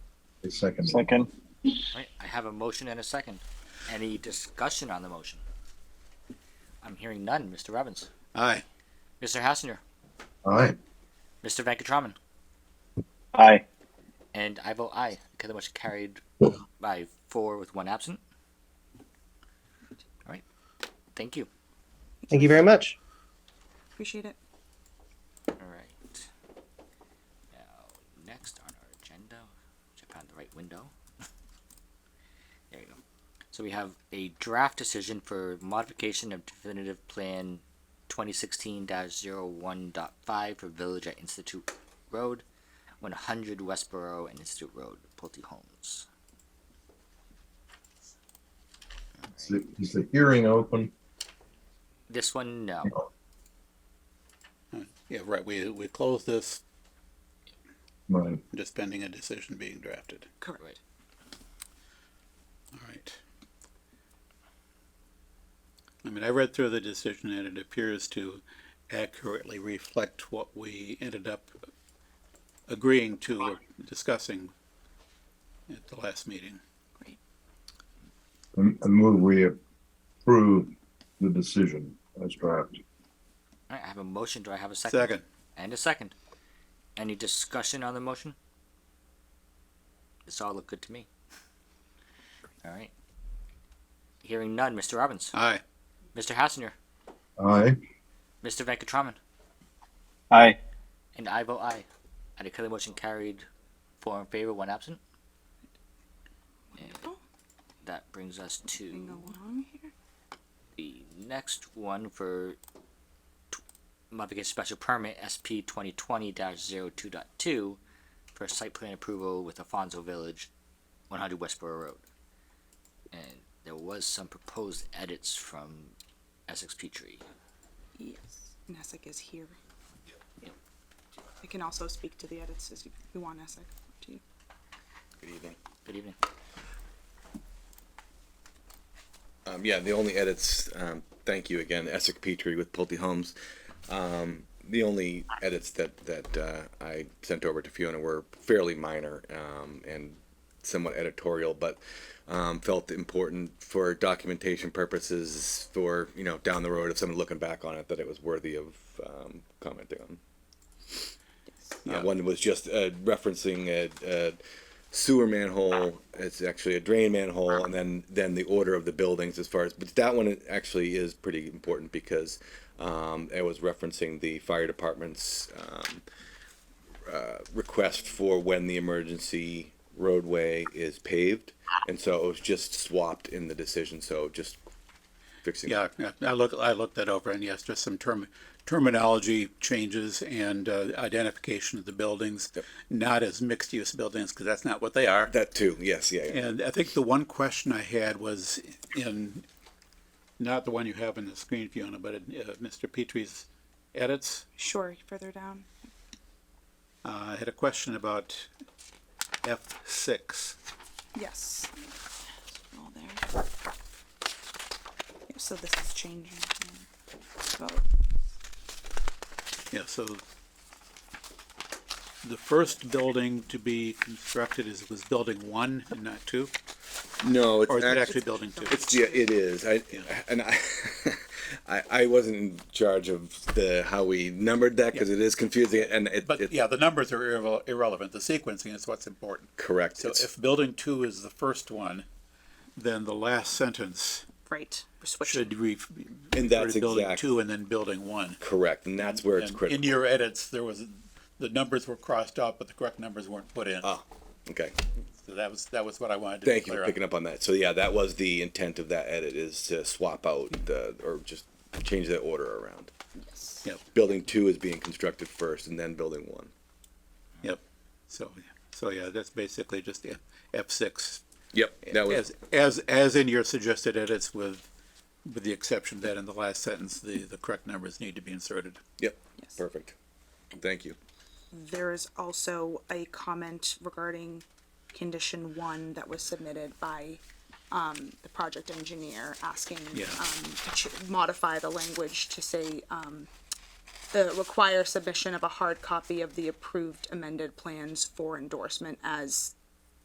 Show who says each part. Speaker 1: to second. it.
Speaker 2: Second.
Speaker 3: Right, I have a motion and a second. Any discussion on the motion? I'm hearing none. Mr. Robbins,
Speaker 4: Aye.
Speaker 3: Mr. Hassinger,
Speaker 1: Aye.
Speaker 3: Mr. Venkatraman,
Speaker 2: Aye.
Speaker 3: and I vote aye. Okay, the motion carried by four with one absent. All right, thank you.
Speaker 5: Thank you very much.
Speaker 6: Appreciate it.
Speaker 3: All right. Now, next on our agenda, which I found the right window. there you go. So we have a draft decision for modification of definitive plan 2016-01.5 for Village at Institute Road, 100 Westboro and Institute Road, Pulte Homes.
Speaker 1: Is the- Is the hearing open?
Speaker 3: This one, no.
Speaker 4: Yeah, right. We, we close this
Speaker 1: Mine.
Speaker 4: just pending a decision being drafted.
Speaker 6: Correct.
Speaker 3: Right.
Speaker 4: All right. I mean, I read through the decision and it appears to accurately reflect what we ended up agreeing to or discussing at the last meeting.
Speaker 1: I move we approve the decision as drafted.
Speaker 3: All right, I have a motion. Do I have a second?
Speaker 4: Second.
Speaker 3: And a second. Any discussion on the motion? This all looked good to me. All right. Hearing none, Mr. Robbins,
Speaker 4: Aye.
Speaker 3: Mr. Hassinger,
Speaker 1: Aye.
Speaker 3: Mr. Venkatraman,
Speaker 2: Aye.
Speaker 3: and I vote aye. I declare the motion carried, four in favor, one absent. And that brings us
Speaker 6: Moving
Speaker 3: to
Speaker 6: along here.
Speaker 3: the next one for tw- modification special permit SP twenty twenty 2 for site plan approval with Afonso Village, one hundred Westboro Road. And there was some proposed edits from Essex Petrie.
Speaker 6: Yes. Nessic is here. I can also speak to the edits as you, you want, Nessic. To you.
Speaker 7: Good evening.
Speaker 3: Good evening.
Speaker 7: Um, yeah, the only edits, um, thank you again, Essex Petrie with Pulte Homes. Um, the only edits that, that, uh, I sent over to Fiona were fairly minor, um, and somewhat editorial, but, um, felt important for documentation purposes for, you know, down the road, if someone looking back on it, that it was worthy of, um, commenting on. Uh, One was just uh, referencing a, a sewer manhole. It's actually a drain manhole, and then then the order of the buildings as far as. But that one actually is pretty important because um, it was referencing the fire department's um, uh, request for when the emergency roadway is paved, and so it was just swapped in the decision. So just fixing.
Speaker 4: Yeah, yeah, I look, I looked that over and yes, just some term, terminology changes and uh, identification of the buildings, not as mixed-use buildings, because that's not what they are.
Speaker 7: That too. Yes. Yeah. yeah.
Speaker 4: And I think the one question I had was in, not the one you have on the screen, Fiona, but in, uh, Mr. Petrie's edits.
Speaker 6: Sure. Further down.
Speaker 4: Uh, I had a question about F six.
Speaker 6: Yes. All there. Yeah, so this is changing. Vote.
Speaker 4: Yeah, so the first building to be constructed is, was building one and not two,
Speaker 7: No. It's
Speaker 4: or is it
Speaker 7: act-
Speaker 4: actually building two?
Speaker 7: It's yeah, it is. I and I, I, I wasn't in charge of the how we numbered that because it is confusing and it,
Speaker 4: But
Speaker 7: it's
Speaker 4: yeah, the numbers are irrele- irrelevant. The sequencing is what's important.
Speaker 7: correct.
Speaker 4: So
Speaker 7: It's-
Speaker 4: if building two is the first one, then the last sentence
Speaker 6: Right. We're switching.
Speaker 4: should re-
Speaker 7: And
Speaker 4: refer
Speaker 7: that's
Speaker 4: to building
Speaker 7: exact-
Speaker 4: two and then building one.
Speaker 7: correct, and that's where it's
Speaker 4: And
Speaker 7: critical.
Speaker 4: In your edits, there was, the numbers were crossed out, but the correct numbers weren't put in.
Speaker 7: Ah, okay.
Speaker 4: So that was, that was what I wanted to be
Speaker 7: Thank you
Speaker 4: clear
Speaker 7: for
Speaker 4: on.
Speaker 7: picking up on that. So yeah, that was the intent of that edit is to swap out the or just change the order around.
Speaker 6: Yes.
Speaker 4: Yep,
Speaker 7: Building two is being constructed first, and then building one.
Speaker 4: yep. So, so yeah, that's basically just F six.
Speaker 7: Yep, that was
Speaker 4: As, as, as in your suggested edits with, with the exception that in the last sentence, the, the correct numbers need to be inserted.
Speaker 7: yep,
Speaker 6: Yes.
Speaker 7: perfect. Thank you.
Speaker 6: There is also a comment regarding condition one that was submitted by um, the project engineer asking
Speaker 4: Yeah.
Speaker 6: um, to ch- modify the language to say um, the require submission of a hard copy of the approved amended plans for endorsement as